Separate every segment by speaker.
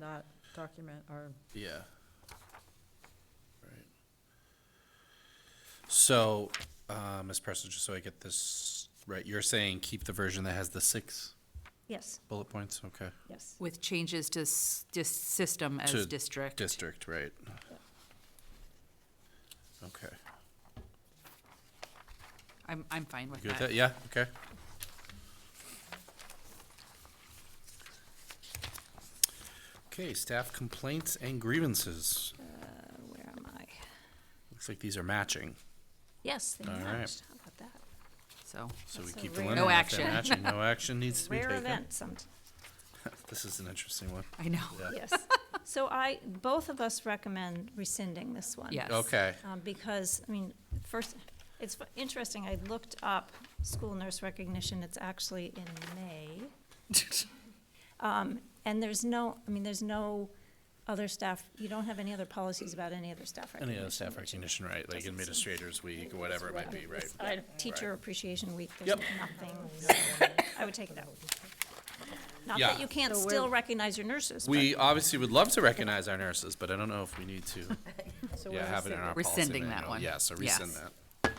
Speaker 1: that document or
Speaker 2: Yeah. Right. So, uh, Ms. Preston, just so I get this right, you're saying keep the version that has the six
Speaker 3: Yes,
Speaker 2: bullet points? Okay.
Speaker 3: yes.
Speaker 4: With changes to s- dis- system
Speaker 2: To
Speaker 4: as district.
Speaker 2: District, right. Okay.
Speaker 4: I'm, I'm fine with
Speaker 2: You good with
Speaker 4: that.
Speaker 2: that? Yeah, okay. Okay, staff complaints and grievances.
Speaker 3: Uh, Where am I?
Speaker 2: Looks like these are matching,
Speaker 3: Yes, they
Speaker 2: All right.
Speaker 3: matched. How about that?
Speaker 4: So,
Speaker 2: so we
Speaker 3: That's a
Speaker 2: keep the
Speaker 3: rare-
Speaker 2: limit. if
Speaker 4: No
Speaker 2: they're
Speaker 4: action.
Speaker 2: matching. No action needs to be
Speaker 3: Rare
Speaker 2: taken.
Speaker 3: event some,
Speaker 2: This is an interesting one.
Speaker 4: I know.
Speaker 2: Yeah.
Speaker 3: yes. So I, both of us recommend rescinding this one.
Speaker 4: Yes.
Speaker 2: Okay,
Speaker 3: Um, because, I mean, first, it's fu- interesting, I looked up school nurse recognition, it's actually in May. Um, and there's no, I mean, there's no other staff, you don't have any other policies about any other staff recognition.
Speaker 2: any other staff recognition, right, like
Speaker 3: Doesn't seem-
Speaker 2: administrators week, or whatever it might be, right?
Speaker 3: It's, uh, Teacher Appreciation Week, there's
Speaker 2: Yep.
Speaker 3: nothing, so I would take it out. Not
Speaker 2: Yeah.
Speaker 3: that you can't still recognize your nurses, but
Speaker 2: We obviously would love to recognize our nurses, but I don't know if we need to, yeah, have it in our policy.
Speaker 4: Rescinding that
Speaker 2: manual.
Speaker 4: one.
Speaker 2: Yeah, so rescind
Speaker 4: Yes.
Speaker 2: that.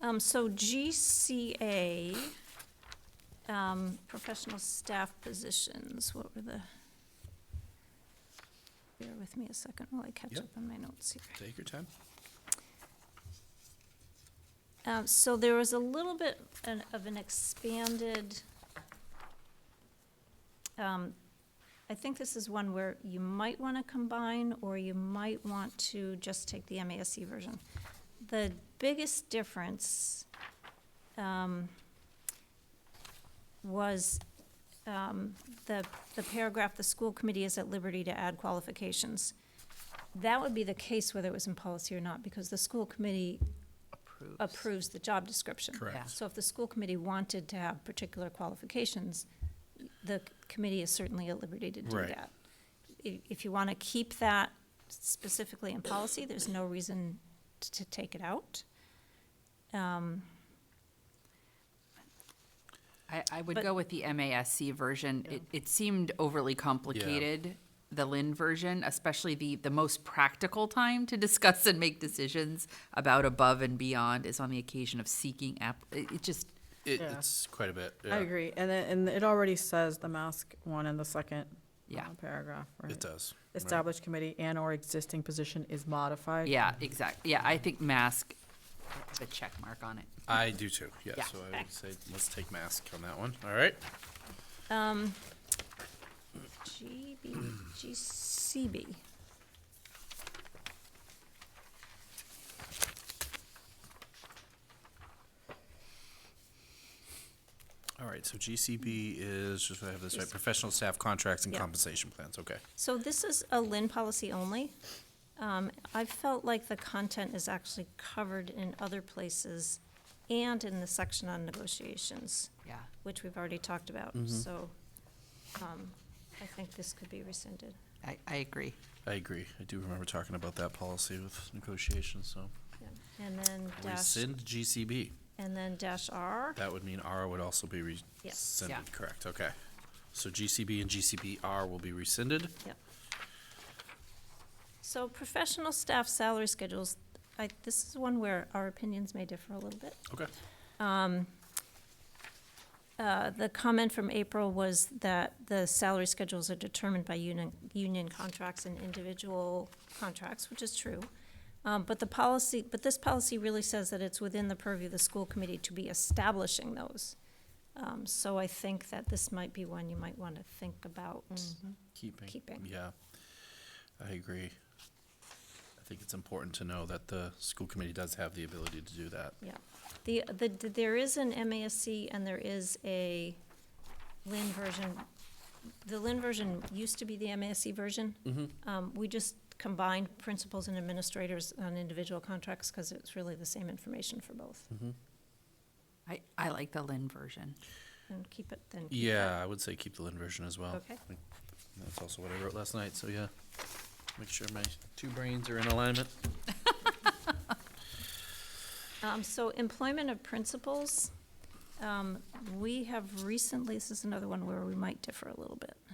Speaker 3: Um, so GCA, um, professional staff positions, what were the? Bear with me a second while I catch
Speaker 2: Yep.
Speaker 3: up on my notes here.
Speaker 2: Take your time.
Speaker 3: Um, so there was a little bit an- of an expanded, um, I think this is one where you might want to combine, or you might want to just take the MASC version. The biggest difference, um, was, um, the, the paragraph, the school committee is at liberty to add qualifications. That would be the case whether it was in policy or not, because the school committee
Speaker 4: Approves.
Speaker 3: approves the job description.
Speaker 2: Correct.
Speaker 3: So if the school committee wanted to have particular qualifications, the c- committee is certainly at liberty to do
Speaker 2: Right.
Speaker 3: that. If, if you want to keep that specifically in policy, there's no reason t- to take it out. Um,
Speaker 4: I, I would
Speaker 3: But-
Speaker 4: go with the MASC version. It, it seemed overly complicated, the Lynn version, especially the, the most practical time to discuss and make decisions about above and beyond is on the occasion of seeking app, it, it just,
Speaker 2: It,
Speaker 1: Yeah.
Speaker 2: it's quite a bit,
Speaker 1: I
Speaker 2: yeah,
Speaker 1: agree, and it, and it already says the mask one in the second
Speaker 4: yeah,
Speaker 1: uh, paragraph,
Speaker 2: it
Speaker 1: right?
Speaker 2: does. right.
Speaker 1: Established committee and or existing position is modified.
Speaker 4: yeah, exact, yeah, I think mask, the check mark on it.
Speaker 2: I do too, yeah,
Speaker 4: Yeah.
Speaker 2: so I would say, let's take mask on that one, all right?
Speaker 3: Um, GB, GCB.
Speaker 2: All right, so GCB is, just so I have this right,
Speaker 3: Yes.
Speaker 2: professional staff contracts and
Speaker 3: Yeah.
Speaker 2: compensation plans, okay.
Speaker 3: So this is a Lynn policy only. Um, I felt like the content is actually covered in other places and in the section on negotiations,
Speaker 4: Yeah,
Speaker 3: which we've already talked about, so, um, I think this could be rescinded.
Speaker 4: I, I agree.
Speaker 2: I agree, I do remember talking about that policy with negotiations, so.
Speaker 3: And then dash,
Speaker 2: Rescind GCB,
Speaker 3: and then dash R,
Speaker 2: that would mean R would also be
Speaker 3: Yeah.
Speaker 2: rescinded, correct, okay. So GCB and GCBR will be rescinded,
Speaker 3: yep. So professional staff salary schedules, I, this is one where our opinions may differ a little bit.
Speaker 2: okay.
Speaker 3: Uh, The comment from April was that the salary schedules are determined by union, union contracts and individual contracts, which is true. Um, But the policy, but this policy really says that it's within the purview of the school committee to be establishing those. Um, So I think that this might be one you might want to think about.
Speaker 2: Keeping.
Speaker 3: Keeping.
Speaker 2: Yeah, I agree. I think it's important to know that the school committee does have the ability to do that.
Speaker 3: Yeah. The, the, there is an MASC and there is a Lynn version. The Lynn version used to be the MASC version. Um, we just combined principals and administrators on individual contracts because it's really the same information for both.
Speaker 4: I, I like the Lynn version.
Speaker 3: And keep it then. keep that.
Speaker 2: Yeah, I would say keep the Lynn version as well.
Speaker 3: Okay.
Speaker 2: I think That's also what I wrote last night, so yeah. Make sure my two brains are in alignment.
Speaker 3: Um, so employment of principals, um, we have recently, this is another one where we might differ a little bit.